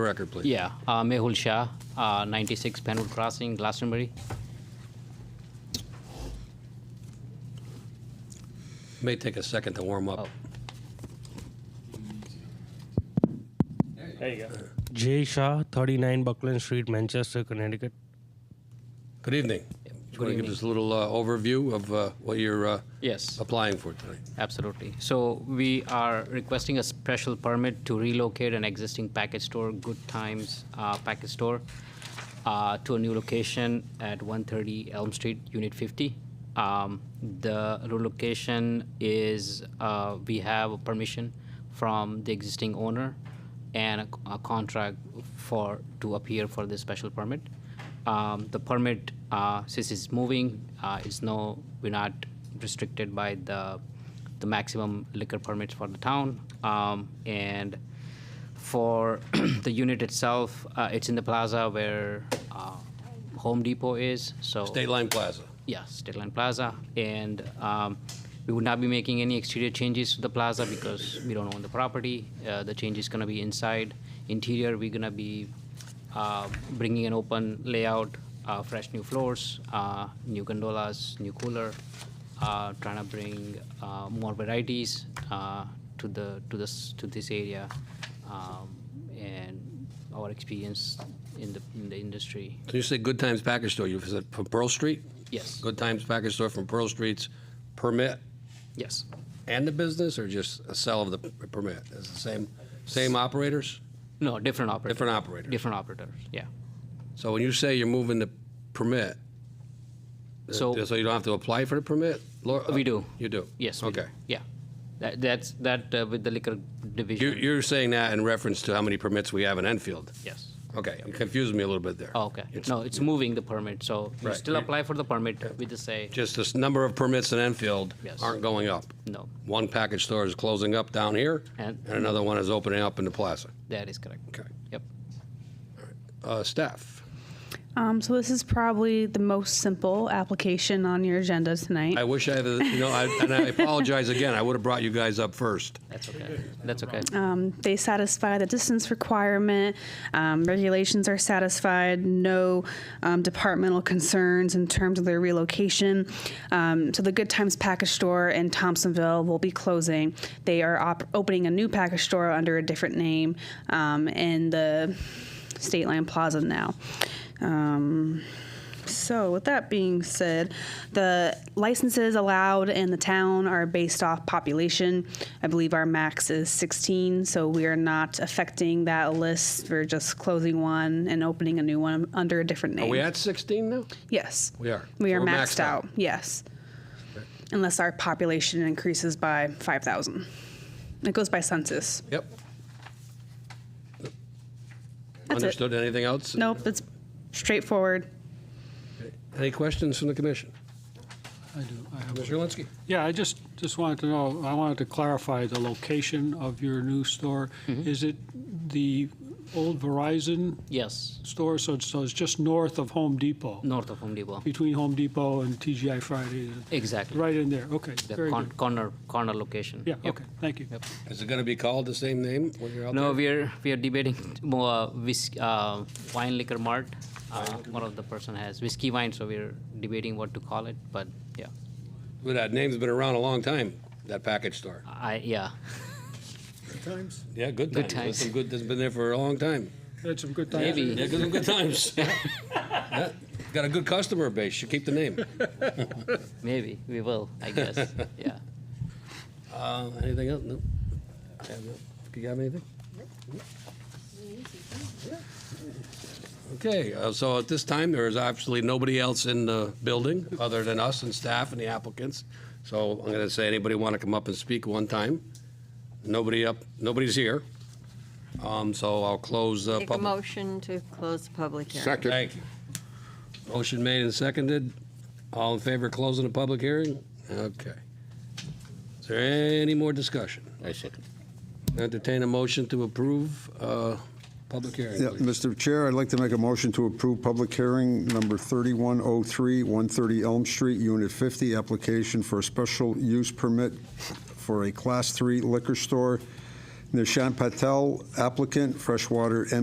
Record, please. Yeah, uh, Mehul Shah, uh, 96 Penwood Crossing, Glastonbury. May take a second to warm up. Oh. There you go. Jay Shah, 39 Buckland Street, Manchester, Connecticut. Good evening. good Want to give evening. us a little uh, overview of uh, what you're uh, Yes, applying for tonight? absolutely. So we are requesting a special permit to relocate an existing package store, Good Times uh, Package Store, uh, to a new location at 130 Elm Street, Unit 50. Um, The relocation is, uh, we have permission from the existing owner and a- a contract for, to appear for this special permit. Um, The permit, uh, since it's moving, uh, is no, we're not restricted by the, the maximum liquor permits for the town. Um, And for the unit itself, uh, it's in the plaza where uh, Home Depot is, so. State Line Plaza. Yeah, State Line Plaza. And um, we would not be making any exterior changes to the plaza because we don't own the property. Uh, The change is going to be inside. Interior, we're going to be uh, bringing an open layout, uh, fresh new floors, uh, new gondolas, new cooler, uh, trying to bring uh, more varieties uh, to the, to this, to this area um, and our experience in the, in the industry. So you say Good Times Package Store, you said from Pearl Street? Yes, Good Times Package Store from Pearl Street's permit yes. and the business, or just a sell of the p- permit? Is the same, same operators? No, different operator. Different operators? Different operators, yeah. So when you say you're moving the permit, uh, so So- you don't have to apply for the permit? Laura- We do. You do? Yes. we do. Okay. Yeah. That, that's, that uh, with the liquor You're, division. you're saying that in reference to how many permits we have in Enfield? Yes. Okay, you confused me a little bit there. Oh, Okay. No, it's moving the permit, so you Right. still apply for the permit, we just say, Just this number of permits in Enfield Yes. aren't going up. no, One package store is closing up down here, and And- another one is opening up in the plaza. that is correct. Okay. Yep. Uh, Staff, Um, so this is probably the most simple application on your agenda tonight. I wish I had, a- you know, I- and I apologize again, I would have brought you guys up first. That's okay. That's okay. Um, they satisfy the distance requirement. Um, regulations are satisfied. No um, departmental concerns in terms of their relocation. Um, so the Good Times Package Store in Thompsonville will be closing. They are op- opening a new package store under a different name um, in the State Line Plaza now. Um, So, with that being said, the licenses allowed in the town are based off population. I believe our max is 16, so we are not affecting that list. We're just closing one and opening a new one under a different name. Are we at 16 now? Yes. We are. We So are we're maxed, out. Yes. Unless our population increases by 5,000. It goes by census. Yep. it. Understood, anything else? Nope, it's straightforward. Any questions from the commission? I do, I have. Mr. Linsky? Yeah, I just, just wanted to know, I wanted to clarify the location of your new store. Mm-hmm. Is it the old Verizon Yes, store? So it's, so it's just north of Home Depot, north of Home Depot. between Home Depot and TGI Fridays, Exactly. right in there. Okay, The very con- good. corner, corner location. Yeah, Yep. okay, thank you. Is it going to be called the same name when you're out there? No, we're, we're debating more uh, whis- uh, wine liquor mart. Uh, One of the person has whiskey wine, so we're debating what to call it, but yeah. Well, That name's been around a long time, that package store. I, yeah, Yeah, good times. Good There's times. some good, that's been there for a long time. Had some good times. maybe. Yeah, good, good times. Yeah, Got a good customer base, should keep the name. Maybe we will, I guess. yeah. Uh, Anything else? No. Yeah, no. Do you have anything? Okay, uh, so at this time, there is absolutely nobody else in the building other than us and staff and the applicants. So I'm going to say, anybody want to come up and speak one time? Nobody up, nobody's here. Um, So I'll close the Make a public. motion to close the public hearing. Thank you. Motion made and seconded. All in favor of closing the public hearing? Okay. Is there any more discussion? I second. Entertain a motion to approve uh, public hearing, Yeah, please. Mr. Chair, I'd like to make a motion to approve public hearing number 3103, 130 Elm Street, Unit 50, application for a special use permit for a Class 3 liquor store. Nishant Patel, applicant, Freshwater